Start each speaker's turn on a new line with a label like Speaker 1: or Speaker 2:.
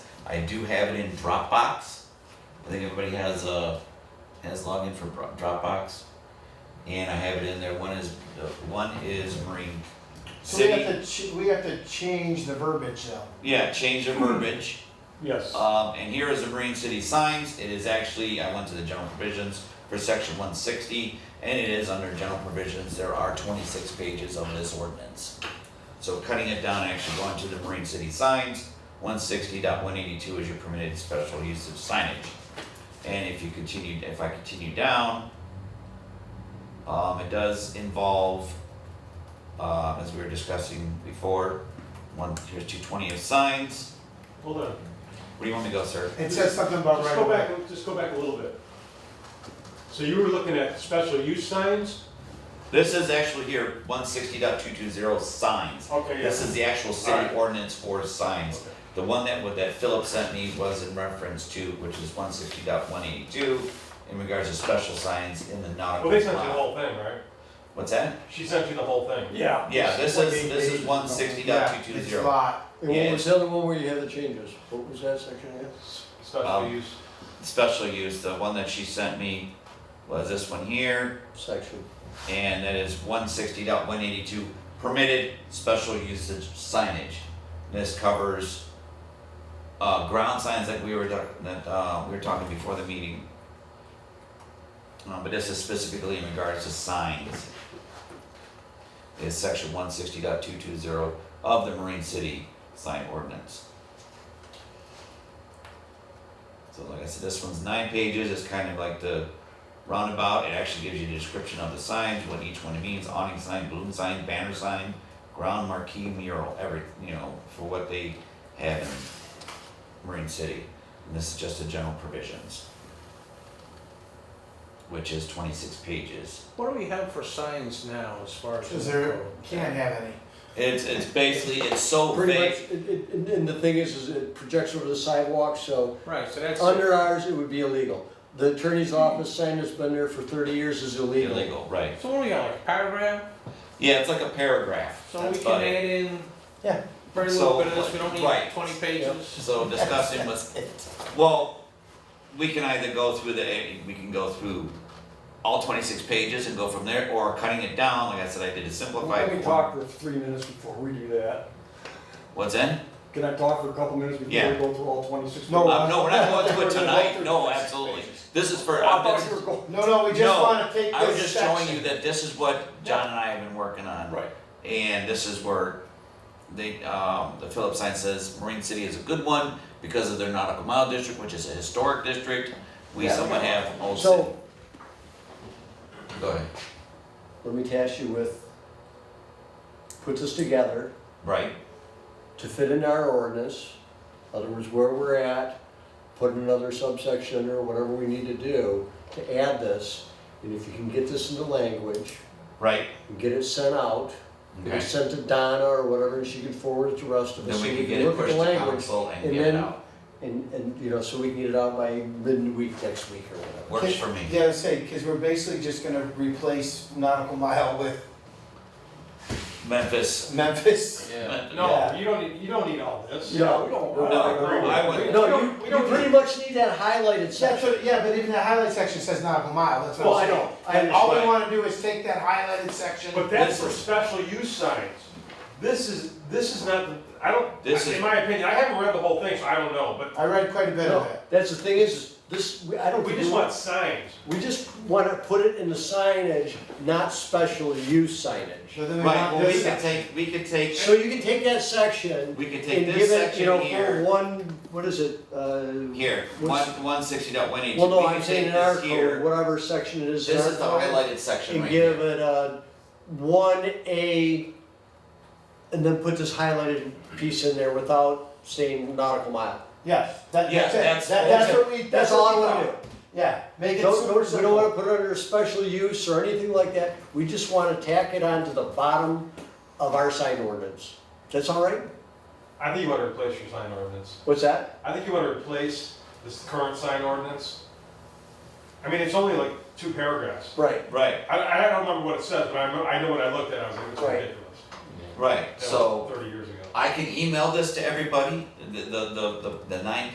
Speaker 1: I do have it in Dropbox. I think everybody has uh has login for Dro- Dropbox, and I have it in there. One is uh, one is Marine
Speaker 2: So we
Speaker 1: City.
Speaker 2: have to, ch- we have to change the verbiage though.
Speaker 1: Yeah, change the verbiage.
Speaker 3: Yes.
Speaker 1: Um, and here is the Marine City signs. It is actually, I went to the general provisions for section one sixty, and it is under general provisions. There are twenty-six pages of this ordinance. So cutting it down, actually going to the Marine City signs, 160.182 is your permitted special use of signage. And if you continue, if I continue down, um, it does involve, uh, as we were discussing before, one, here's two twenty of signs.
Speaker 3: Hold on.
Speaker 1: Where do you want me to go, sir?
Speaker 2: It says something about
Speaker 3: Just
Speaker 2: right
Speaker 3: go
Speaker 2: of way.
Speaker 3: back, just go back a little bit. So you were looking at special use signs?
Speaker 1: This is actually here, one sixty signs.
Speaker 3: Okay,
Speaker 1: This
Speaker 3: yes.
Speaker 1: is the actual city
Speaker 3: Alright.
Speaker 1: ordinance for signs.
Speaker 3: Okay.
Speaker 1: The one that, what that Philip sent me was in reference to, which is one sixty in regards to special signs in the
Speaker 3: Well,
Speaker 1: nautical.
Speaker 3: they sent you the
Speaker 1: lot.
Speaker 3: whole thing, right?
Speaker 1: What's that?
Speaker 3: She sent you the whole thing.
Speaker 4: Yeah.
Speaker 1: Yeah, this is,
Speaker 2: Like eight
Speaker 1: this is
Speaker 2: pages.
Speaker 1: one sixty
Speaker 2: Yeah, It's a lot.
Speaker 4: And
Speaker 1: Yeah.
Speaker 4: what was the other one where you had the changes? What was that section again?
Speaker 3: Special
Speaker 1: Um,
Speaker 3: use.
Speaker 1: Special use, the one that she sent me was this one here,
Speaker 4: Section.
Speaker 1: and that is one sixty permitted special usage signage. This covers uh, ground signs that we were, doc- that, uh, we were talking before the meeting. Um, but this is specifically in regards to signs. Is section one sixty of the Marine City sign ordinance. So like I said, this one's nine pages, it's kind of like the roundabout, it actually gives you a description of the signs, what each one means, awning sign, balloon sign, banner sign, ground marquee mural, every, you know, for what they have in Marine City. And this is just the general provisions, which is twenty-six pages.
Speaker 4: What do we have for signs now as far as?
Speaker 2: Cause there, can't have any.
Speaker 1: It's, it's basically, it's so
Speaker 4: Pretty much,
Speaker 1: vague.
Speaker 4: it- it- and and the thing is, is it projects over the sidewalk, so
Speaker 5: Right, so that's.
Speaker 4: under ours, it would be illegal. The attorney's office sign that's been there for thirty years is illegal.
Speaker 1: Illegal, right.
Speaker 5: So what do we got, like a paragraph,
Speaker 1: Yeah, it's like a paragraph.
Speaker 5: so
Speaker 1: That's
Speaker 5: we
Speaker 1: about
Speaker 5: can
Speaker 1: it.
Speaker 5: add in.
Speaker 2: Yeah.
Speaker 5: Very
Speaker 1: So,
Speaker 5: little bit of this, we don't
Speaker 1: right.
Speaker 5: need twenty pages.
Speaker 1: So discussing was, well, we can either go through the, we can go through all twenty-six pages and go from there, or cutting it down, like I said, I did a simplified
Speaker 6: Let me
Speaker 1: form.
Speaker 6: talk for three minutes before we do that.
Speaker 1: What's in?
Speaker 6: Can I talk for a couple minutes before
Speaker 1: Yeah.
Speaker 6: we go through all twenty-six?
Speaker 2: No,
Speaker 1: Um, no, we're not
Speaker 6: We're
Speaker 1: going through it
Speaker 6: gonna go
Speaker 1: tonight,
Speaker 6: through
Speaker 1: no,
Speaker 6: 26
Speaker 1: absolutely,
Speaker 6: pages.
Speaker 1: this is
Speaker 6: Oh,
Speaker 1: for,
Speaker 6: I
Speaker 1: uh,
Speaker 6: thought
Speaker 1: this-
Speaker 6: you were going.
Speaker 2: No, no, we just
Speaker 1: No,
Speaker 2: wanna take
Speaker 1: I was
Speaker 2: this
Speaker 1: just showing you
Speaker 2: section.
Speaker 1: that this is what John and I have been working on.
Speaker 6: Right.
Speaker 1: And this is where they, um, the Phillips sign says Marine City is a good one because of their nautical mile district, which is a historic district, we
Speaker 4: Yeah.
Speaker 1: somewhat have Old City.
Speaker 4: So,
Speaker 1: Go ahead.
Speaker 4: let me task you with, put this together.
Speaker 1: Right,
Speaker 4: to fit into our ordinance, in other words, where we're at, put another subsection or whatever we need to do to add this. And if you can get this into language,
Speaker 1: right,
Speaker 4: and get it sent out, get
Speaker 1: okay.
Speaker 4: it sent to Donna or whatever, and she can forward it to the rest of
Speaker 1: Then
Speaker 4: us. so
Speaker 1: we
Speaker 4: we
Speaker 1: can get it
Speaker 4: look at
Speaker 1: pushed
Speaker 4: the
Speaker 1: to
Speaker 4: language.
Speaker 1: council and
Speaker 4: and
Speaker 1: get it
Speaker 4: then-
Speaker 1: out.
Speaker 4: And, and, you know, so we can get it out by midweek next week or whatever.
Speaker 1: Works for me.
Speaker 2: Yeah, I was saying, cause we're basically just gonna replace nautical mile with
Speaker 1: Memphis.
Speaker 2: Memphis.
Speaker 5: Yeah.
Speaker 3: No, you don't need, you don't need all this.
Speaker 4: No, no,
Speaker 3: I
Speaker 1: No,
Speaker 3: agree with
Speaker 1: I
Speaker 3: you.
Speaker 1: wouldn't.
Speaker 3: We- we
Speaker 4: No,
Speaker 3: don't-
Speaker 4: you,
Speaker 3: we
Speaker 4: you
Speaker 3: don't
Speaker 4: pretty
Speaker 3: need-
Speaker 4: much need that highlighted
Speaker 2: Yeah,
Speaker 4: section.
Speaker 2: so, yeah, but even the highlight section says nautical mile, that's
Speaker 4: Well,
Speaker 2: what
Speaker 4: I
Speaker 2: I'm saying.
Speaker 4: know, I
Speaker 2: And All we
Speaker 4: understand.
Speaker 2: wanna do is take that highlighted section.
Speaker 3: But that's
Speaker 1: This
Speaker 3: for
Speaker 1: is-
Speaker 3: special use signs. This is, this is not, the- I don't,
Speaker 1: This is-
Speaker 3: in my opinion, I haven't read the whole thing, so I don't know, but
Speaker 2: I read quite a bit of
Speaker 4: No,
Speaker 2: it.
Speaker 4: that's the thing is, is this, we- I don't.
Speaker 3: we
Speaker 4: think
Speaker 3: just want signs.
Speaker 4: We just want to put it in the signage, not special use signage.
Speaker 2: So then we
Speaker 1: Right,
Speaker 2: want
Speaker 1: well, we
Speaker 2: this
Speaker 1: could
Speaker 2: section.
Speaker 1: take, we could take,
Speaker 4: So you can take that section
Speaker 1: we could
Speaker 4: and
Speaker 1: take
Speaker 4: give
Speaker 1: this
Speaker 4: it, you
Speaker 1: section
Speaker 4: know, for
Speaker 1: here,
Speaker 4: one, what is it? uh,
Speaker 1: here, one,
Speaker 4: what's-
Speaker 1: one sixty dot one eighty.
Speaker 4: Well, no, I'm saying in our code, whatever section it is. in
Speaker 1: This
Speaker 4: our
Speaker 1: is the
Speaker 4: code,
Speaker 1: highlighted section
Speaker 4: And
Speaker 1: right
Speaker 4: give
Speaker 1: here.
Speaker 4: it a one A, and then put this highlighted piece in there without saying nautical mile.
Speaker 2: Yes, that,
Speaker 1: Yeah,
Speaker 2: that's
Speaker 1: that's-
Speaker 2: it, that, that's
Speaker 4: that's
Speaker 2: what we,
Speaker 4: That's
Speaker 2: that's
Speaker 4: all I
Speaker 2: what we
Speaker 4: want to
Speaker 2: do.
Speaker 4: do.
Speaker 2: Yeah, make it
Speaker 4: Don't,
Speaker 2: super
Speaker 4: don't- we don't wanna
Speaker 2: simple.
Speaker 4: put it under special use or anything like that, we just wanna tack it onto the bottom of our sign ordinance. That's all right?
Speaker 3: I think you wanna replace your sign ordinance.
Speaker 4: What's that?
Speaker 3: I think you wanna replace this current sign ordinance. I mean, it's only like two paragraphs.
Speaker 4: Right.
Speaker 1: Right,
Speaker 3: I, I don't remember what it says, but I, remember- I know when I looked at it, I was like, it's
Speaker 4: Right.
Speaker 3: ridiculous.
Speaker 1: right,
Speaker 3: That was
Speaker 1: so
Speaker 3: Thirty years ago.
Speaker 1: I can email this to everybody, the, the, the, the- the nine